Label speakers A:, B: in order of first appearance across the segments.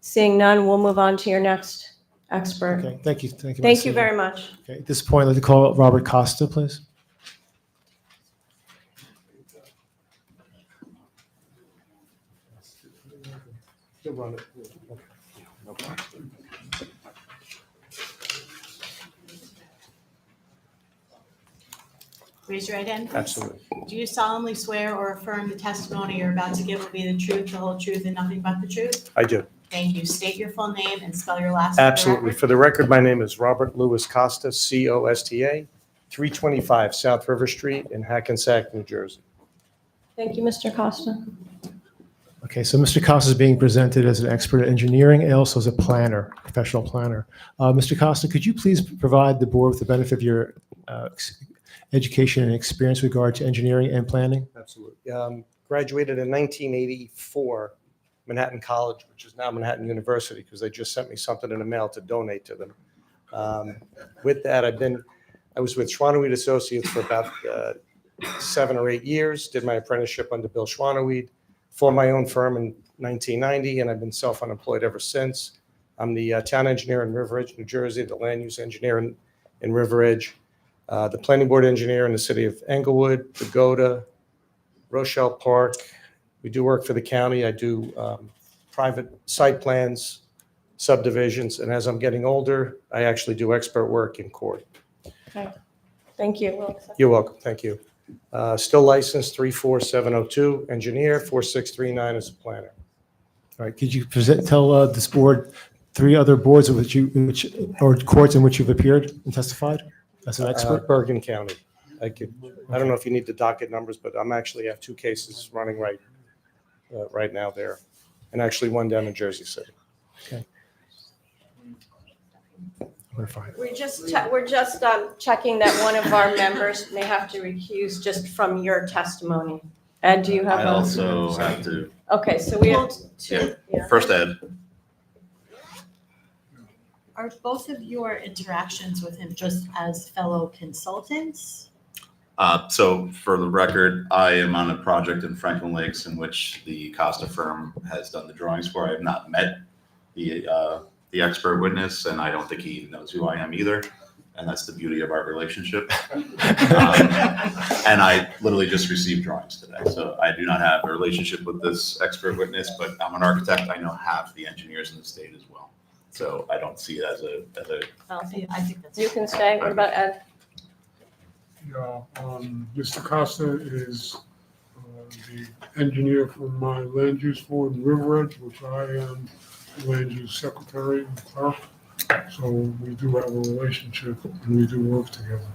A: Seeing none, we'll move on to your next expert.
B: Okay, thank you, thank
A: Thank
B: you. Ms.
A: you
B: Siegel.
A: very much.
B: Okay, at this point, I'd like to call Robert Costa, please.
C: Raise your right hand, please.
D: Absolutely.
C: Do you solemnly swear or affirm the testimony you're about to give will be the truth, the whole truth, and nothing but the truth?
D: I do.
C: Thank you. State your full name and spell your last. for the
D: Absolutely.
C: record.
D: For the record, my name is Robert Louis Costa, C-O-S-T-A, 325 South River Street in Hackensack, New Jersey.
A: Thank you, Mr. Costa.
B: Okay, so Mr. Costa is being presented as an expert at engineering and also as a planner, professional planner. Uh, Mr. Costa, could you please provide the board with the benefit of your uh, ex- education and experience with regard to engineering and planning?
D: Absolutely. Um, Graduated in 1984, Manhattan College, which is now Manhattan University, because they just sent me something in the mail to donate to them. Um, With that, I've been, I was with Schwanoweed Associates for about uh, seven or eight years, did my apprenticeship under Bill Schwanoweed, formed my own firm in 1990, and I've been self-unemployed ever since. I'm the uh, town engineer in River Edge, New Jersey, the land use engineer in in River Edge, uh, the planning board engineer in the city of Englewood, Pagoda, Rochelle Park. We do work for the county. I do um, private site plans, subdivisions, and as I'm getting older, I actually do expert work in court.
A: Thank you. We'll accept-
D: You're welcome. Thank you. Uh, Still licensed 34702, engineer 4639 as a planner.
B: All right, could you present, tell uh, this board three other boards in which you, in which, or courts in which you've appeared and testified as an
D: Uh,
B: expert?
D: Bergen County. I could, I don't know if you need the docket numbers, but I'm actually have two cases running right, uh, right now there, and actually one down in Jersey City.
B: We're fine.
A: We're just, che- we're just um, checking that one of our members may have to recuse just from your testimony. Ed, do you have?
E: I
A: a-
E: also have to,
A: Okay, so we have two. yeah.
E: first Ed,
C: Are both of your interactions with him just as fellow consultants?
E: uh, so for the record, I am on a project in Franklin Lakes in which the Costa firm has done the drawings for. I have not met the, uh, the expert witness, and I don't think he even knows who I am either. And that's the beauty of our relationship. Um, And I literally just received drawings today, so I do not have a relationship with this expert witness, but I'm an architect. I know half the engineers in the state as well. So I don't see it as a, as a
C: I think I think that's.
A: You can stay. What about Ed?
F: Yeah, um, Mr. Costa is uh, the engineer for my land use board in River Edge, which I am land use secretary and clerk. So we do have a relationship and we do work together.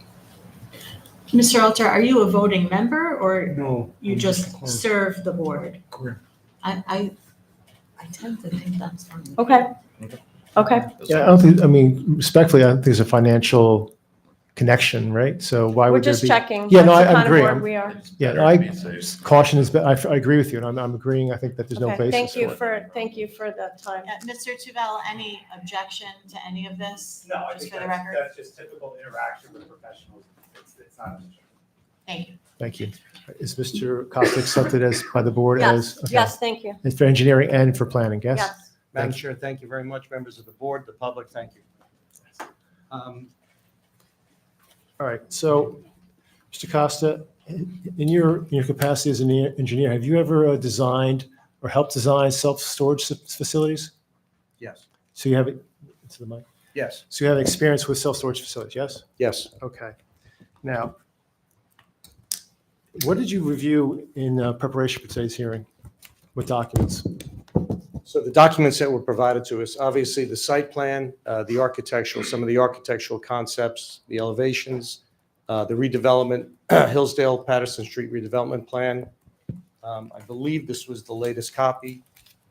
C: Mr. Alter, are you a voting member or
F: No.
C: you
F: I'm
C: just
F: clerk.
C: serve the board?
F: Correct.
C: I, I, I tend to think that's fine.
A: Okay. Okay,
B: Yeah, I don't think, I mean, respectfully, I don't think there's a financial connection, right? So why
A: we're
B: would there
A: just
B: be?
A: checking.
B: Yeah, no,
A: That's
B: I- I
A: the kind of
B: agree.
A: board
B: I'm-
A: We are.
B: Yeah,
E: Better
B: I-
E: to be safe.
B: Caution is, be- I, I agree with you, and I'm, I'm agreeing, I think that there's no
A: Okay,
B: basis.
A: thank
B: for
A: you
B: it.
A: for, thank you for the time.
C: Uh, Mr. Tuvell, any objection to any of this?
G: No, I
C: Just
G: think
C: for the
G: that's,
C: record.
G: that's just typical interaction with professionals. It's, it's not.
C: Thank you.
B: Thank you. Is Mr. Costa accepted as, by the board
A: Yes,
B: as? okay.
A: yes, thank you.
B: And for engineering and for planning, yes?
A: Yes.
D: Madam
B: Thank
D: Chair, thank you very much, members of the board, the public, thank you. Um,
B: All right, so, Mr. Costa, in in your, in your capacity as an e- engineer, have you ever uh, designed or helped design self-storage s- facilities?
D: Yes,
B: So you have, into the mic,
D: yes,
B: so you have experience with self-storage facilities, yes?
D: yes.
B: Okay. Now, what did you review in uh, preparation for today's hearing? What documents?
D: So the documents that were provided to us, obviously the site plan, uh, the architectural, some of the architectural concepts, the elevations, uh, the redevelopment, Hillsdale Patterson Street redevelopment plan. Um, I believe this was the latest copy.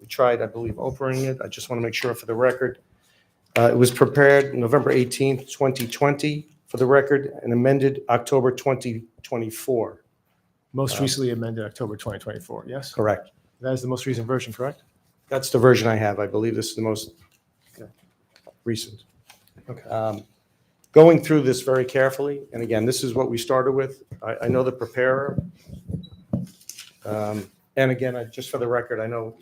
D: We tried, I believe, opering it. I just want to make sure for the record. Uh, It was prepared November 18th, 2020, for the record, and amended October 2024.
B: Most recently amended October 2024, yes?
D: Correct.
B: That is the most recent version, correct?
D: That's the version I have. I believe this is the most
B: Okay.
D: recent.
B: Okay.
D: um, going through this very carefully, and again, this is what we started with. I, I know the preparer. Um, And again, I, just for the record, I know